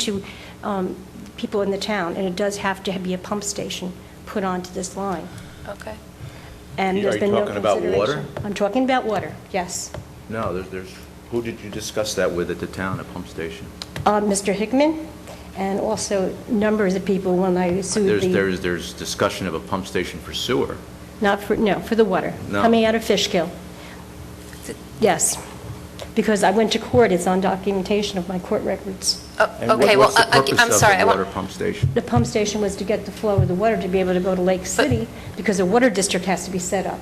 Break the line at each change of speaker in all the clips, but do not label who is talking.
to um, people in the town, and it does have to be a pump station put onto this line.
Okay.
And
Are
there's
you
been no
talking about water?
consideration. I'm talking about water, yes.
No, there's, there's, who did you discuss that with at the town, at pump station?
Uh, Mr. Hickman, and also numbers of people when I sued
There's,
the,
there's, there's discussion of a pump station for sewer.
not for, no, for the water.
No.
Coming out of Fishkill. Yes, because I went to court, it's on documentation of my court records.
Oh, Okay, well,
uh,
I- I- I'm sorry. I
And what- what's the purpose of the
want-
water pump station?
The pump station was to get the flow of the water to be able to go to Lake City, because a water district has to be set up.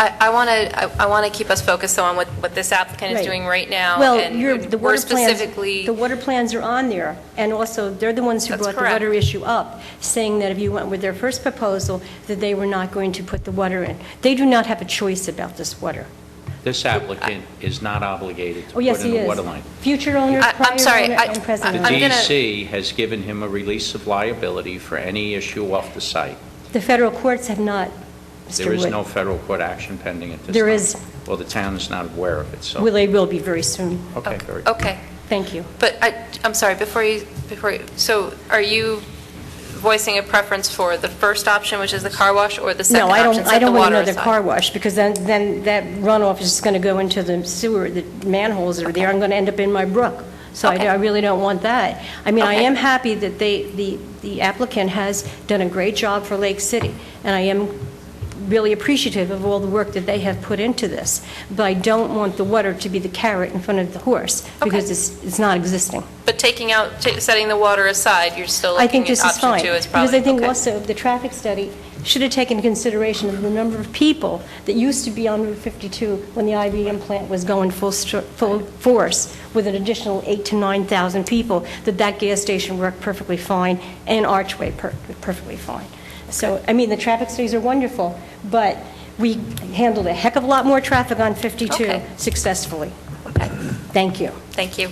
I want to, I want to keep us focused though on what, what this applicant is
Right.
doing right now.
Well,
and
you're, the
we're
water plans,
specifically-
the water plans are on there, and also, they're the ones who
That's
brought the
correct.
water issue up, saying that if you went with their first proposal, that they were not going to put the water in. They do not have a choice about this water.
This applicant is not obligated to
Oh,
put in
yes, he
a
is.
water line.
Future owner,
I- I'm
prior
sorry,
owner,
I-
and
The E
present
I'm
owner.
gonna-
DEC has given him a release of liability for any issue off the site.
The federal courts have not, Mr.
There is
Wood.
no federal court action pending at this time.
There is.
Well, the town is not aware of it, so...
Well, they will be very soon.
Okay, very good.
Okay,
Thank you.
but I, I'm sorry, before you, before, you- so are you voicing a preference for the first option, which is the car wash, or the
No,
second
I
option,
don't, I
set the
don't want
water
another car
aside?
wash, because then, then that runoff is just going to go into the sewer, the manholes that are there, I'm going to end up in my brook. So I
Okay.
I really don't want that. I mean, I
Okay.
am happy that they, the the applicant has done a great job for Lake City, and I am really appreciative of all the work that they have put into this, but I don't want the water to be the carrot in front of the horse, because it's, it's not existing.
But taking out, ta- setting the water aside, you're still
I think
looking
this
at
is
option
fine.
two as
Because
probably,
I think
okay.
also, the traffic study should have taken into consideration of the number of people that used to be on Route 52 when the IBM plant was going full, str- full force, with an additional 8 to 9,000 people, that that gas station worked perfectly fine, and Archway per- perfectly fine. So, I mean, the traffic studies are wonderful, but we handled a heck of a lot more traffic on 52
Okay.
successfully.
Okay.
Thank you.
Thank you.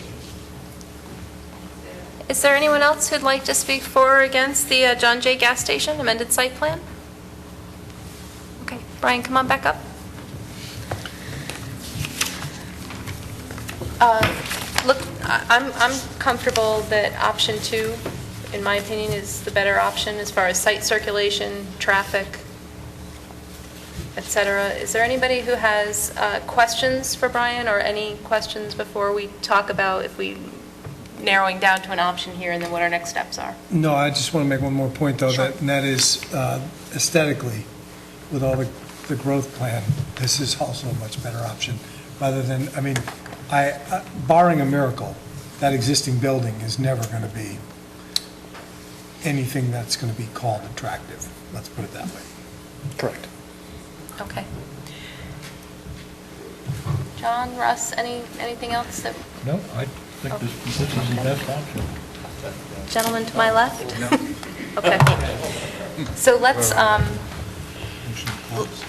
Is there anyone else who'd like to speak for or against the uh, John Jay Gas Station amended site plan? Okay, Brian, come on back up. Uh, Look, I- I'm I'm comfortable that option two, in my opinion, is the better option as far as site circulation, traffic, et cetera. Is there anybody who has uh, questions for Brian, or any questions before we talk about if we narrowing down to an option here, and then what our next steps are?
No, I just want to make one more point, though,
Sure.
that- and that is uh, aesthetically, with all the, the growth plan, this is also a much better option, rather than, I mean, I, uh, barring a miracle, that existing building is never going to be anything that's going to be called attractive, let's put it that way. Correct.
Okay. John, Russ, any, anything else that,
No, I think this, this is the best option.
gentlemen to my left? Okay. So let's, um,
Motion closed.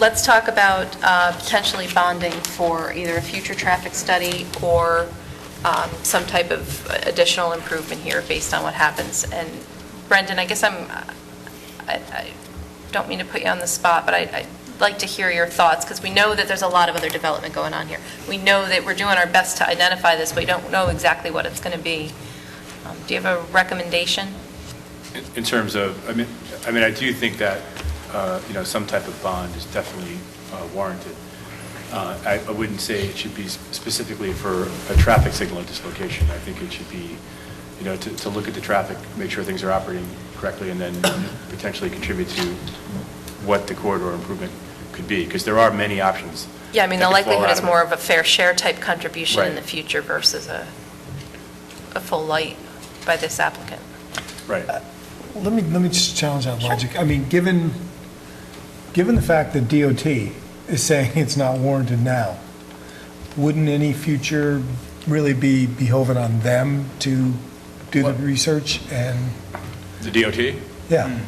let's talk about uh, potentially bonding for either a future traffic study or um, some type of additional improvement here based on what happens. And Brendan, I guess I'm, I I don't mean to put you on the spot, but I- I'd like to hear your thoughts, because we know that there's a lot of other development going on here. We know that we're doing our best to identify this, but we don't know exactly what it's going to be. Um, Do you have a recommendation?
In- In terms of, I mean, I mean, I do think that, uh, you know, some type of bond is definitely uh, warranted. Uh, I I wouldn't say it should be specifically for a traffic signal dislocation. I think it should be, you know, to, to look at the traffic, make sure things are operating correctly, and then potentially contribute to what the corridor improvement could be, because there are many options.
Yeah, I mean, the
that could fall
likelihood
out
is
of it.
more of a fair share type contribution in
Right.
the future versus a, a full light by this applicant.
Right.
Let me, let me just challenge that logic. I mean, given, given the fact that DOT is saying it's not warranted now, wouldn't any future really be beholden on them to do the
What?
research and,
The DOT,
yeah?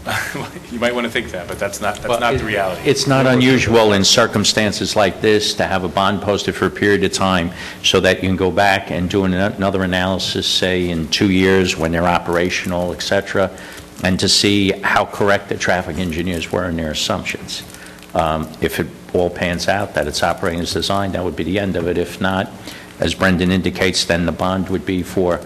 you might want to think that, but that's not,
Well,
that's not
it-
the reality.
It's not unusual in circumstances like this to have a bond posted for a period of time so that you can go back and do an- another analysis, say, in two years when they're operational, et cetera, and to see how correct the traffic engineers were in their assumptions. Um, If it all pans out, that it's operating as designed, that would be the end of it. If not, as Brendan indicates, then the bond would be for